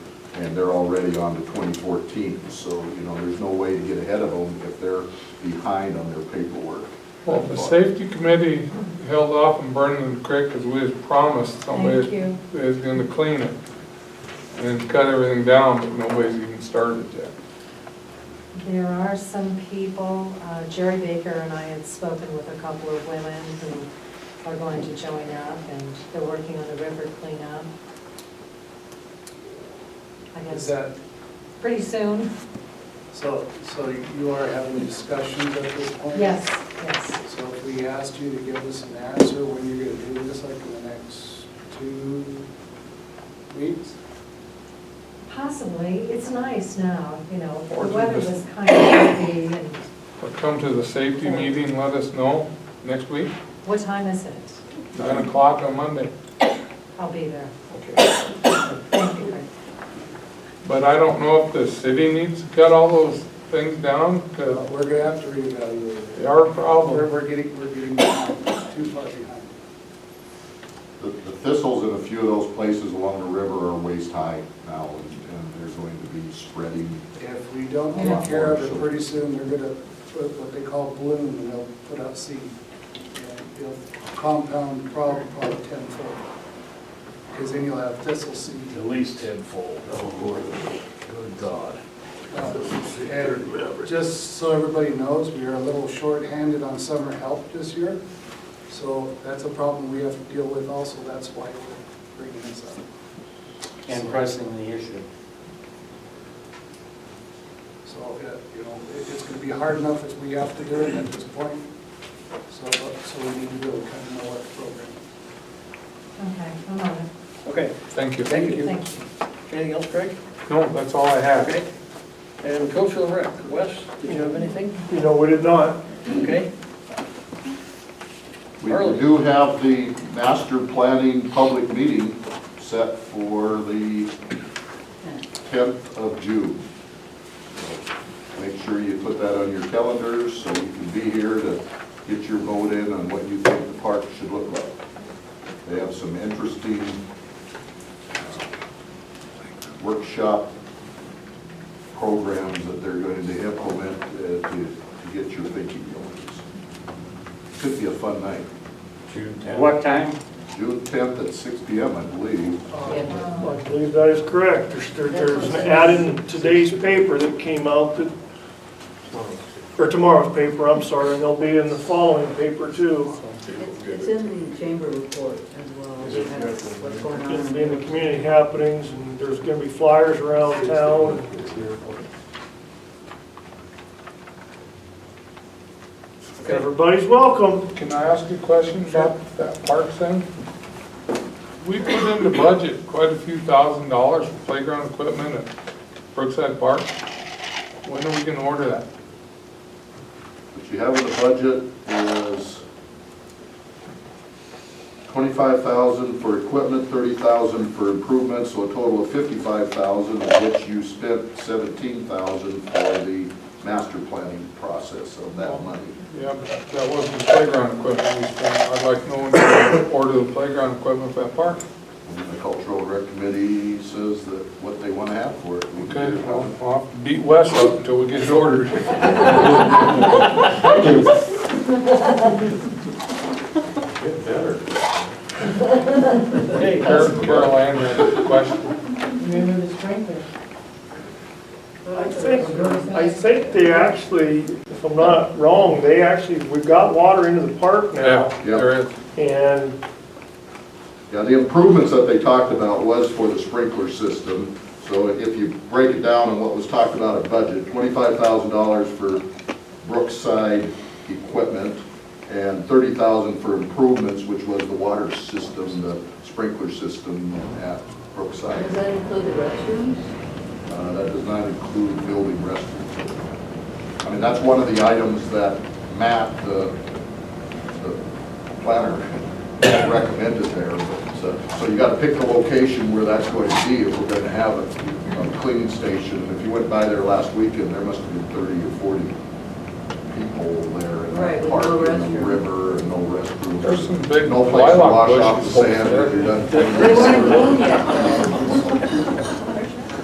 and they're already on to 2014. So, you know, there's no way to get ahead of them if they're behind on their paperwork. Well, the safety committee held off on burning the creek because we had promised Thank somebody you. was gonna clean it and cut everything down, but nobody's even started yet. There are some people, uh, Jerry Baker and I had spoken with a couple of women who are going to join up, and they're working on the river cleanup. I Is guess, that, pretty soon, so, so you are having discussions at this point? yes, yes. So if we asked you to give us an answer when you're gonna do this, like in the next two weeks? Possibly, it's nice now, you know, Or the weather just- was kind of iffy, and But come to the safety meeting, let us know next week, what time is it? nine o'clock on Monday. I'll be there. Okay. Thank you. But I don't know if the city needs to cut all those things down, Uh, because We're gonna have to reevaluate they it. are a We're, problem. we're getting, we're getting behind, too far behind. The the thistles in a few of those places along the river are waist high now, and- and they're going to be spreading. If we don't Yeah. take care of it pretty soon, they're gonna put what they call bloom, and they'll put out seed. And It'll compound problem probably tenfold. Because then you'll have thistle seed. At least tenfold. Oh, Lord. Good God. And just so everybody knows, we are a little short-handed on summer help this year. So that's a problem we have to deal with also. That's why we're bringing this up. and pressing the issue. So, uh, you know, it- it's going to be hard enough if we have to do it at this point. So, so we need to really kind of know what program. Okay, I'm on it. Okay, Thank you. thank you. Thank you. Anything else, Greg? No, that's all I have. Okay. And Coachville Rec, Wes, did you have anything? No, we did not. Okay, We Early. do have the master planning public meeting set for the 10th of June. So Make sure you put that on your calendars so you can be here to get your vote in on what you think the park should look like. They have some interesting uh, workshop programs that they're going to implement uh, to to get your thinking going. Could be a fun night. what time? June 10th at 6 PM, I believe. I believe that is correct. There's, there- there's an ad in today's paper that came out that, or tomorrow's paper, I'm sorry, and they'll be in the following paper too. It's it's in the chamber report as well, as what's going on. It'll be in the community happenings and there's gonna be flyers around town. Everybody's welcome. Can I ask you a question about that parks thing? We put into budget quite a few thousand dollars for playground equipment at Brookside Park. When are we gonna order that? What you have in the budget is 25,000 for equipment, 30,000 for improvements, so a total of 55,000, of which you spent 17,000 for the master planning process of that money. Yeah, but that wasn't the playground equipment we spent. I'd like no one to order the playground equipment for that park. And then the cultural rec committee says that what they want to have for it. We Okay, can get it. well, I'll have to beat Wes up until we get it ordered. Hey, Carol Carol Ann had a question. Remember the strength I think, I think they actually, if I'm not wrong, they actually, we've got water into the park now. Yeah, there is. And Yeah, the improvements that they talked about was for the sprinkler system. So if you break it down on what was talked about at budget, twenty-five thousand dollars for Brookside equipment and thirty thousand for improvements, which was the water system, the sprinkler system at Does Brookside. that include the restrooms? Uh, that does not include building restrooms. I mean, that's one of the items that Matt, the, the planner, recommended there. So, so you gotta pick the location where that's going to be if we're gonna have a, a cleaning station. If you went by there last weekend, there must have been thirty or forty people there in Right, that with park, no in the restroom. river, and no restrooms. There's some big No place to lilac wash off the bushes over sand there. if you're done They cleaning. weren't bloom yet.